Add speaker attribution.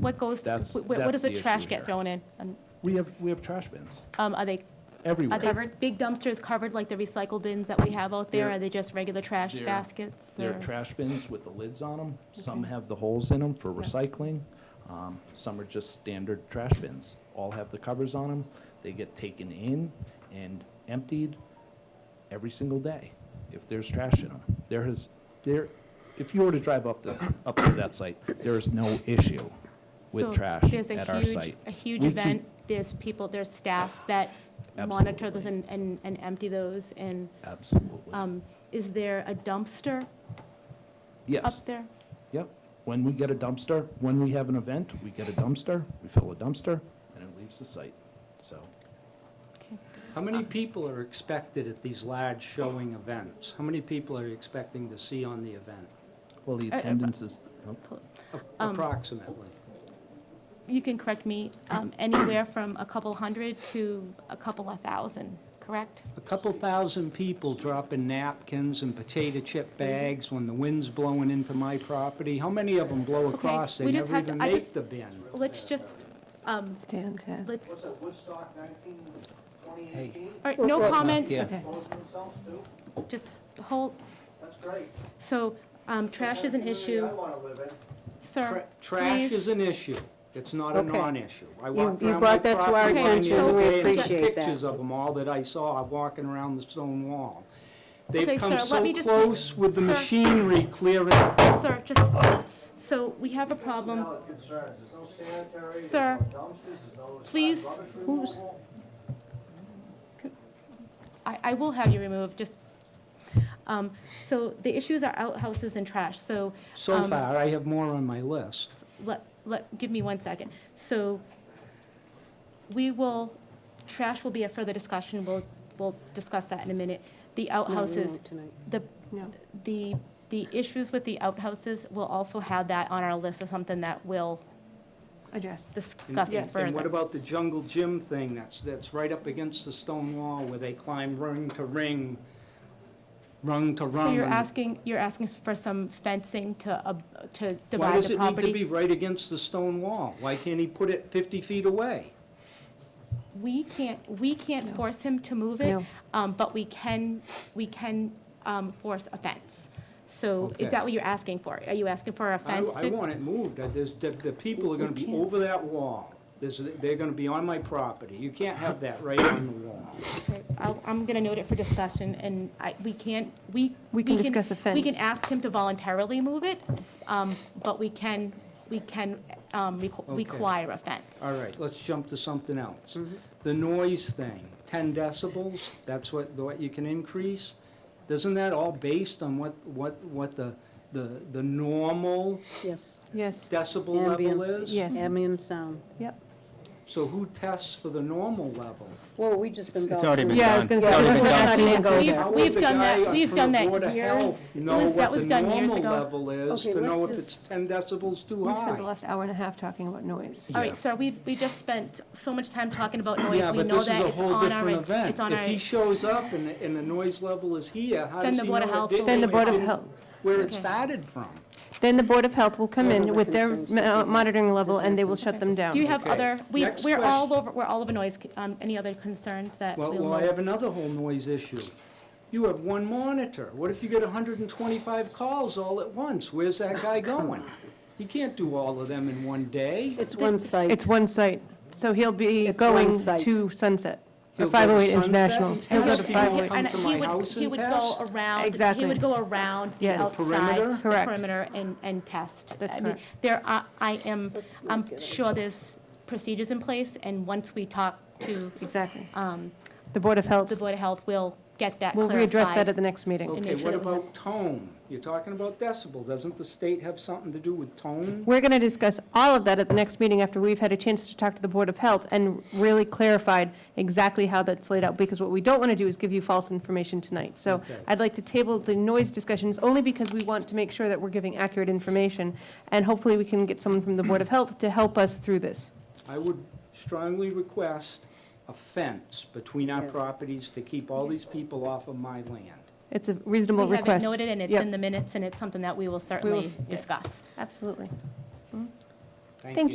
Speaker 1: What goes,
Speaker 2: That's-
Speaker 1: wh- wh- what
Speaker 2: that's
Speaker 1: does the
Speaker 2: the
Speaker 1: trash
Speaker 2: issue
Speaker 1: get
Speaker 2: here.
Speaker 1: thrown in? Um,
Speaker 2: We have, we have trash bins
Speaker 1: um, Are they,
Speaker 2: everywhere.
Speaker 1: are they big dumpsters covered like the recycle bins that we have out there?
Speaker 2: They're-
Speaker 1: Are they just regular trash
Speaker 2: they're-
Speaker 1: baskets?
Speaker 2: They're
Speaker 1: or-
Speaker 2: trash bins with the lids on them. Some
Speaker 1: Okay.
Speaker 2: have the holes in them for
Speaker 1: Yeah.
Speaker 2: recycling. Um, Some are just standard trash bins. All have the covers on them. They get taken in and emptied every single day if there's trash in them. There is, there, if you were to drive up to, up to that site, there is no issue
Speaker 1: So
Speaker 2: with trash
Speaker 1: there's a
Speaker 2: at our
Speaker 1: huge-
Speaker 2: site.
Speaker 1: A huge
Speaker 2: We keep-
Speaker 1: event, there's people, there's staff that monitor those
Speaker 2: Absolutely.
Speaker 1: and, and and empty those, and
Speaker 2: Absolutely.
Speaker 1: um, is there a dumpster
Speaker 2: Yes.
Speaker 1: up there?
Speaker 2: Yep. When we get a dumpster, when we have an event, we get a dumpster, we fill a dumpster, and it leaves the site. So
Speaker 1: Okay.
Speaker 3: How many people are expected at these large showing events? How many people are you expecting to see on the event,
Speaker 2: Well, the
Speaker 1: Uh, uh,
Speaker 2: attendance is, oh,
Speaker 3: a-
Speaker 1: Um,
Speaker 3: approximately?
Speaker 1: You can correct me, um, anywhere from a couple hundred to a couple of thousand, correct?
Speaker 3: A couple thousand people dropping napkins and potato
Speaker 1: Mm-hmm.
Speaker 3: chip bags when the wind's blowing into my property. How many of them blow across? They
Speaker 1: we just
Speaker 3: never
Speaker 1: have to-
Speaker 3: even
Speaker 1: I
Speaker 3: make
Speaker 1: just-
Speaker 3: the bin.
Speaker 1: Let's just, um,
Speaker 4: Stand test.
Speaker 1: let's, all
Speaker 5: What's that, Woodstock 19, 2018?
Speaker 1: right, no comments,
Speaker 4: Okay.
Speaker 5: Both themselves too?
Speaker 1: just hold,
Speaker 5: That's great.
Speaker 1: so um, trash is an
Speaker 5: That's the
Speaker 1: issue,
Speaker 5: community I want to live in.
Speaker 1: sir.
Speaker 3: Tra- Trash
Speaker 1: please.
Speaker 3: is an issue. It's not a
Speaker 4: Okay.
Speaker 3: non-issue. I
Speaker 4: You-
Speaker 3: walked
Speaker 4: you
Speaker 3: around
Speaker 4: brought
Speaker 3: my
Speaker 4: that to our
Speaker 3: property line the
Speaker 1: attention,
Speaker 3: other
Speaker 1: we
Speaker 3: day and took
Speaker 4: appreciate that.
Speaker 3: Pictures of them, all that I saw walking around the stone wall. They've
Speaker 1: Okay,
Speaker 3: come
Speaker 1: sir, let me
Speaker 3: so
Speaker 1: just-
Speaker 3: close with the
Speaker 1: sir.
Speaker 3: machinery clearing
Speaker 1: Sir, just, so we have a problem,
Speaker 5: Valid concerns. There's no sanitary, there's no
Speaker 1: Sir,
Speaker 5: dumpsters, there's no.
Speaker 1: please,
Speaker 5: rubbish
Speaker 4: who's-
Speaker 5: removal.
Speaker 1: I, I will have you removed, just, um, so the issues are outhouses and trash, so
Speaker 3: So
Speaker 1: Um,
Speaker 3: far, I have more on my list.
Speaker 1: let, let, give me one second. So we will, trash will be a further discussion, we'll, we'll discuss that in a minute. The outhouses, the,
Speaker 4: No.
Speaker 1: the, the issues with the outhouses, we'll also have that on our list as something that we'll
Speaker 4: Address.
Speaker 3: And-
Speaker 1: discuss
Speaker 3: and- And what
Speaker 1: further.
Speaker 3: about the jungle gym thing that's, that's right up against the stone wall where they climb rung to ring, rung to rung?
Speaker 1: So you're
Speaker 3: and-
Speaker 1: asking, you're asking for some fencing to, ab- to
Speaker 3: Why
Speaker 1: divide
Speaker 3: does
Speaker 1: the
Speaker 3: it need to be
Speaker 1: property?
Speaker 3: right against the stone wall? Why can't he put it 50 feet away?
Speaker 1: We can't, we can't force him to move it,
Speaker 4: No.
Speaker 1: um, but we can, we can, um, force a fence. So
Speaker 3: Okay.
Speaker 1: is that what you're asking for? Are you asking for a
Speaker 3: I
Speaker 1: fence?
Speaker 3: I
Speaker 1: to-
Speaker 3: want it moved. I- There's, the, the people are gonna be over that wall. There's, they're gonna be on my property. You can't have that right on the wall.
Speaker 1: Okay, I'll- I'm going to note it for discussion, and I, we can't, we.
Speaker 4: We can discuss a
Speaker 1: We can
Speaker 4: fence.
Speaker 1: ask him to voluntarily move it, um, but we can, we can um, requ-
Speaker 3: Okay.
Speaker 1: require a fence.
Speaker 3: All right, let's jump to something else.
Speaker 1: Mm-hmm.
Speaker 3: The noise thing, 10 decibels, that's what, what you can increase? Isn't that all based on what, what, what the, the, the normal
Speaker 6: Yes.
Speaker 4: Yes,
Speaker 3: decibel level
Speaker 6: Ambient.
Speaker 3: is?
Speaker 4: yes.
Speaker 6: Ambient sound.
Speaker 4: Yep.
Speaker 3: So who tests for the normal level?
Speaker 6: Well, we just been.
Speaker 7: It's already been
Speaker 4: Yeah, I was
Speaker 7: done.
Speaker 4: gonna say,
Speaker 7: It's
Speaker 4: this is
Speaker 7: already
Speaker 4: what
Speaker 7: been
Speaker 4: I'm
Speaker 7: done.
Speaker 4: asking.
Speaker 1: We've-
Speaker 4: Go there.
Speaker 1: We've done that, we've done that
Speaker 3: How would the guy up
Speaker 1: years,
Speaker 3: from the
Speaker 1: it was,
Speaker 3: Board
Speaker 1: that
Speaker 3: of Health
Speaker 1: was
Speaker 3: know
Speaker 1: done years
Speaker 3: what the normal
Speaker 1: ago.
Speaker 3: level is,
Speaker 6: Okay,
Speaker 3: to know
Speaker 6: what's
Speaker 3: if
Speaker 6: this-
Speaker 3: it's 10 decibels too
Speaker 4: We spent
Speaker 3: high?
Speaker 4: the last hour and a half talking about noise.
Speaker 1: All right, sir, we, we just spent so much time talking about noise,
Speaker 3: Yeah,
Speaker 1: we
Speaker 3: but
Speaker 1: know
Speaker 3: this is
Speaker 1: that
Speaker 3: a
Speaker 1: it's
Speaker 3: whole
Speaker 1: on our,
Speaker 3: different event.
Speaker 1: it's on
Speaker 3: If he
Speaker 1: our,
Speaker 3: shows up and, the- and the noise level is here, how
Speaker 1: Then
Speaker 3: does
Speaker 1: the
Speaker 3: he know
Speaker 1: Board of
Speaker 3: it
Speaker 1: Health
Speaker 3: didn't-
Speaker 1: will-
Speaker 4: Then the Board of
Speaker 3: it didn't-
Speaker 4: Health,
Speaker 3: Where it
Speaker 1: Okay.
Speaker 3: started from?
Speaker 4: then the Board of Health will come in
Speaker 6: Whatever
Speaker 4: with their
Speaker 6: concerns the
Speaker 4: uh,
Speaker 6: city.
Speaker 4: monitoring level, and they will shut
Speaker 1: Okay.
Speaker 4: them down.
Speaker 1: do you have
Speaker 3: Okay.
Speaker 1: other, we,
Speaker 3: Next
Speaker 1: we're all
Speaker 3: question.
Speaker 1: over, we're all over noise, um, any other concerns that
Speaker 3: Well,
Speaker 1: we'll
Speaker 3: well, I
Speaker 1: know?
Speaker 3: have another whole noise issue. You have one monitor. What if you get hundred and twenty-five calls all at once? Where's that guy going? You can't do all of them in one day.
Speaker 6: It's one site.
Speaker 4: It's one site, so he'll be
Speaker 6: It's
Speaker 4: going
Speaker 6: one site.
Speaker 4: to Sunset,
Speaker 3: He'll
Speaker 4: or
Speaker 3: go to
Speaker 4: 508
Speaker 3: Sunset
Speaker 4: International.
Speaker 3: and
Speaker 4: He'll go
Speaker 3: test
Speaker 4: to
Speaker 3: people.
Speaker 4: 508.
Speaker 3: come
Speaker 1: And
Speaker 3: to
Speaker 1: he
Speaker 3: my
Speaker 1: would-
Speaker 3: house
Speaker 1: He
Speaker 3: and
Speaker 1: would
Speaker 3: test?
Speaker 1: go around, he
Speaker 4: Exactly.
Speaker 1: would go around the
Speaker 4: Yes.
Speaker 1: outside.
Speaker 3: Perimeter?
Speaker 1: the
Speaker 4: Correct.
Speaker 1: perimeter and, and test.
Speaker 4: That's
Speaker 1: I mean,
Speaker 4: correct.
Speaker 1: There are, I am,
Speaker 6: Let's not
Speaker 1: I'm
Speaker 6: get
Speaker 1: sure there's procedures in place, and once we talk to
Speaker 4: Exactly.
Speaker 1: um,
Speaker 4: The Board of Health,
Speaker 1: the Board of Health, we'll get that
Speaker 4: we'll
Speaker 1: clarified.
Speaker 4: readdress that at the next meeting.
Speaker 3: Okay,
Speaker 1: make sure
Speaker 3: what
Speaker 1: that we have-
Speaker 3: about tone? You're talking about decibel. Doesn't the state have something to do with tone?
Speaker 4: We're going to discuss all of that at the next meeting after we've had a chance to talk to the Board of Health and really clarified exactly how that's laid out, because what we don't want to do is give you false information tonight. So
Speaker 3: Okay.
Speaker 4: I'd like to table the noise discussions only because we want to make sure that we're giving accurate information, and hopefully we can get someone from the Board of Health to help us through this.
Speaker 3: I would strongly request a fence between our
Speaker 6: Yeah.
Speaker 3: properties to keep all these people off of my land.
Speaker 4: It's a reasonable
Speaker 1: We have it
Speaker 4: request.
Speaker 1: noted, and it's
Speaker 4: Yep.
Speaker 1: in the minutes, and it's something that we will certainly
Speaker 4: yes.
Speaker 1: discuss.
Speaker 4: Absolutely.
Speaker 3: Thank
Speaker 4: Thank
Speaker 3: you.